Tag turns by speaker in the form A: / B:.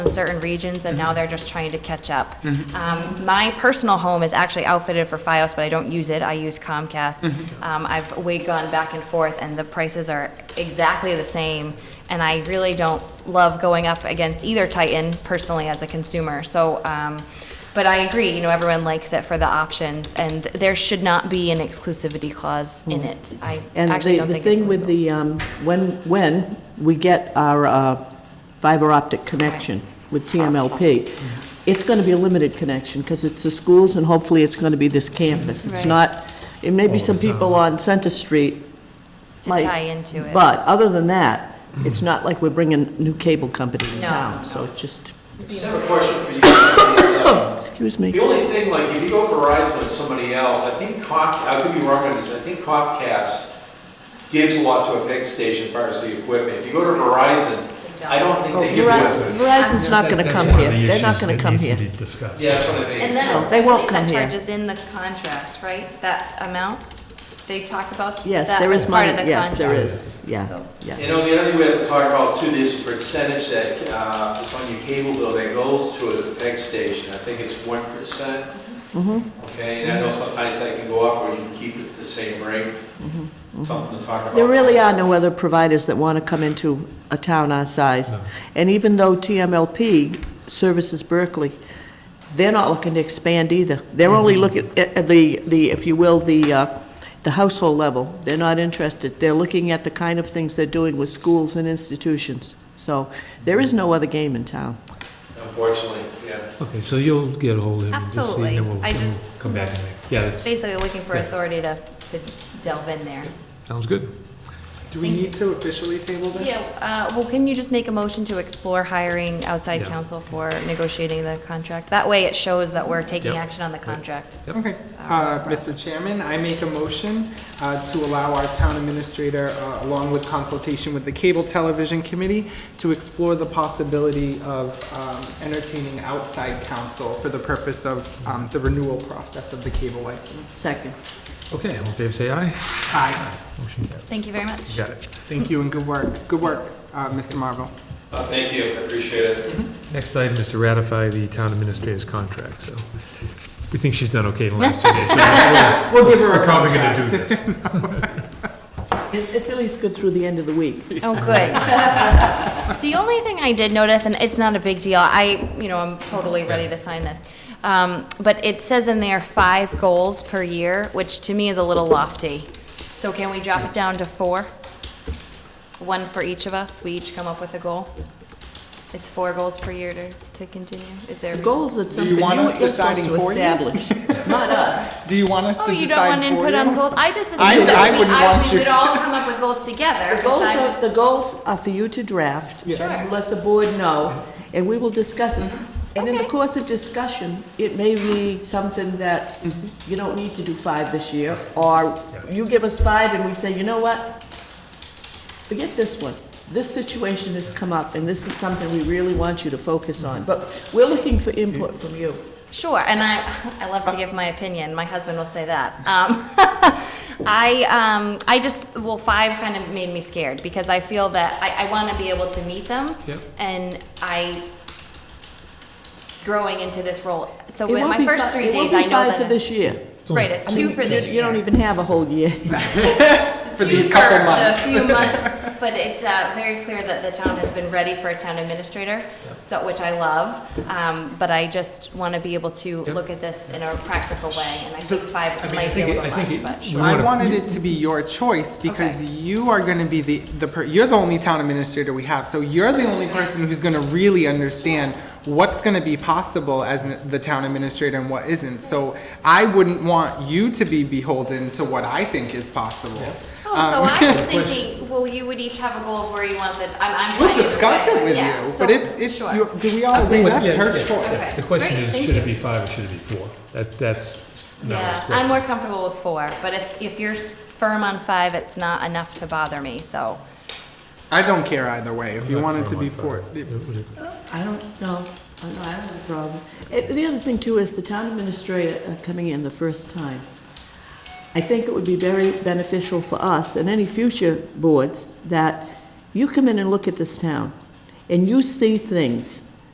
A: in certain regions, and
B: Mm-hmm.
A: now they're just trying to catch up. Um, My personal home is actually outfitted for Fios, but I don't use it, I use Comcast.
B: Mm-hmm.
A: Um, I've, we gone back and forth, and the prices are exactly the same, and I really don't love going up against either Titan personally as a consumer, so, um, but I agree, you know, everyone likes it for the options, and there should not be an exclusivity clause in it. I
B: Mm-hmm. And
A: actually
B: the,
A: don't
B: the
A: think it's
B: thing with the, um, when, when we get our uh, fiber optic connection with TMLP, it's going to be a limited connection, because it's the schools, and hopefully it's going to be this campus. It's
A: Right.
B: not, it may be some people on Center Street
A: to
B: like-
A: tie into it.
B: But other than that, it's not like we're bringing new cable company in
A: No,
B: town, so it just,
C: Just have a question for you. It's, uh,
B: excuse
C: The
B: me.
C: only thing, like, if you go Verizon or somebody else, I think Comcast, I could be wrong on this, but I think Comcast gives a lot to a big station as far as the equipment. If you go to Verizon, I don't think
B: Oh,
C: they give you
B: Verizon-
C: equipment.
B: Verizon's not going to come here. They're not going to come here.
D: That's one of the issues that needs to be discussed.
C: Yeah, that's what I mean.
A: And then,
B: they
A: I
B: won't
A: think that
B: come here.
A: charge is in the contract, right? That amount? They talk about
B: Yes,
A: that
B: there
A: as
B: is
A: part of
B: money,
A: the
B: yes, there
A: contract.
B: is, yeah,
A: So-
B: yeah.
C: You know, the other thing we have to talk about too, there's a percentage that, uh, it's on your cable bill that goes to as a peg station. I think it's one percent. Okay, and I know sometimes that can go up or you can keep it the same rate. Something to talk about.
B: There really are no other providers that want to come into a town our size.
D: No.
B: And even though TMLP services Berkeley, they're not looking to expand either. They're only looking at at the, the, if you will, the, uh, the household level. They're not interested. They're looking at the kind of things they're doing with schools and institutions. So there is no other game in town.
C: Unfortunately, yeah.
D: Okay, so you'll get ahold of him, and just see, and then we'll
A: Absolutely. I
D: then we'll
A: just-
D: come back and make, yeah, that's-
A: Basically, looking for authority to, to delve in there.
D: sounds good.
E: Do we need to officially table this?
A: Yeah, uh, well, can you just make a motion to explore hiring outside
D: Yeah.
A: counsel for negotiating the contract? That way it shows that we're taking
D: Yep.
A: action on the contract.
D: Yep.
E: Okay, uh, Mr. Chairman, I make a motion, uh, to allow our town administrator, uh, along with consultation with the Cable Television Committee, to explore the possibility of, um, entertaining outside counsel for the purpose of, um, the renewal process of the cable license.
B: Second.
D: Okay, all in favor, say aye.
E: Aye.
D: Motion carries.
A: Thank you very much.
D: You Got it.
E: Thank you and good work, good work, uh, Mr. Marvel.
C: Uh, Thank you, I appreciate it.
D: Next item is to ratify the town administrator's contract, so we think she's done okay in the last two days. so
E: We'll give her
D: We're
E: a
D: probably
E: call.
D: gonna do this.
B: It- It's at least good through the end of the week.
A: Oh, good. The only thing I did notice, and it's not a big deal, I, you know, I'm totally ready to sign this. Um, but it says in there five goals per year, which to me is a little lofty. So can we drop it down to four? One for each of us, we each come up with a goal? It's four goals per year to, to continue, is there? a reason?
B: Goals that
E: Do
B: something
E: you want
B: you're
E: us
B: you're supposed
E: deciding
B: to
E: for you?
B: establish, not us.
E: Do you want us to
A: Oh,
E: decide for you?
A: you don't want input on goals? I just
E: I-
A: assumed
E: I
A: that we,
E: wouldn't
A: I,
E: want
A: we
E: you
A: would
E: to-
A: all come up with goals together.
B: The goals
A: 'cause I'm-
B: are, the goals are for you to draft.
A: Sure.
B: and Let the board know, and we will discuss it. And in the
A: Okay.
B: course of discussion, it may be something that
A: Mm-hmm.
B: you don't need to do five this year, or you give us five and we say, you know what? Forget this one. This situation has come up, and this is something we really want you to focus on. But we're looking for input from you.
A: Sure, and I, I love to give my opinion. My husband will say that. Um, I, um, I just, well, five kind of made me scared because I feel that I, I want to be able to meet them.
D: Yep.
A: And I, growing into this role, so
B: It
A: in
B: won't
A: my
B: be
A: first
B: fi-
A: three days,
B: It
A: I
B: won't be
A: know
B: five
A: that.
B: for this year.
A: Right, it's
B: I
A: two
B: mean,
A: for
B: you-
A: this
B: You
A: year.
B: don't even have a whole year.
E: for
A: two
E: these couple
A: for
E: months.
A: The few months, but it's uh, very clear that the town has been ready for a town administrator, so, which I love. Um, But I just want to be able to
D: Yep.
A: look at this in a practical way, and I think five
D: I mean, I
A: might be a
D: think it-
A: little
D: I think
A: much, but
D: it- we
A: sure.
E: I
D: wanna-
E: wanted it to be your choice because
A: Okay.
E: you are going to be the, the, per- you're the only town administrator we have. So you're the only person who's going to really understand what's going to be possible as an- the town administrator and what isn't. So I wouldn't want you to be beholden to what I think is possible.
A: Oh,
E: um,
A: so I was thinking, well, you would each have a goal of where you want the, I'm, I'm.
E: We'll
A: fine either
E: discuss
A: way,
E: it with
A: yeah,
E: you,
A: so-
E: but it's, it's,
A: sure.
E: your- do we all agree? That's her choice.
A: Okay.
D: The question
A: Great,
D: is,
A: thank
D: should
A: you.
D: it be five or should it be four? That, that's not
A: Yeah,
D: a
A: I'm
D: question.
A: more comfortable with four, but if, if you're s- firm on five, it's not enough to bother me, so.
E: I don't care either way. If you
D: Not
E: want it
D: four,
E: to be
D: one,
E: four.
D: five. It would-
B: I don't know, I don't I don't have a problem. Eh, The other thing too is the town administrator uh, coming in the first time. I think it would be very beneficial for us and any future boards that you come in and look at this town and you see things